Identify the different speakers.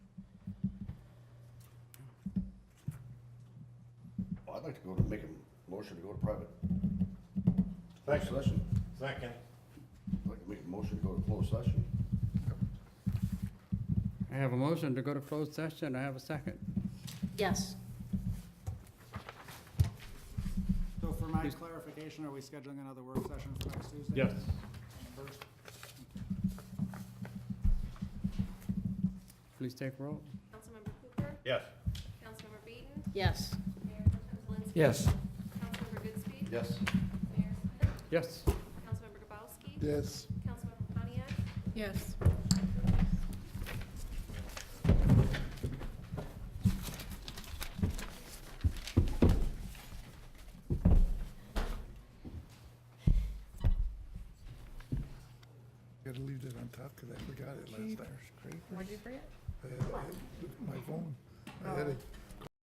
Speaker 1: I'd like to go to make a motion to go to private. Closed session.
Speaker 2: Second.
Speaker 1: I'd like to make a motion to go to closed session.
Speaker 3: I have a motion to go to closed session. I have a second.
Speaker 4: Yes.
Speaker 5: So for my clarification, are we scheduling another work session for next Tuesday?
Speaker 2: Yes.
Speaker 5: First?
Speaker 3: Please take roll.
Speaker 6: Councilmember Cooper,
Speaker 2: Yes.
Speaker 6: Councilmember Beaton,
Speaker 4: Yes.
Speaker 6: Mayor Kuchar
Speaker 3: Yes.
Speaker 6: Councilmember Goodspeed,
Speaker 1: Yes.
Speaker 6: Mayor Smith,
Speaker 3: Yes.
Speaker 6: Councilmember Grabowski,
Speaker 7: Yes.
Speaker 6: Councilmember Pontiac,
Speaker 4: Yes.
Speaker 7: Gotta leave that on top because I forgot it last night.
Speaker 4: What'd you forget?
Speaker 7: I had- I had- My phone, I had a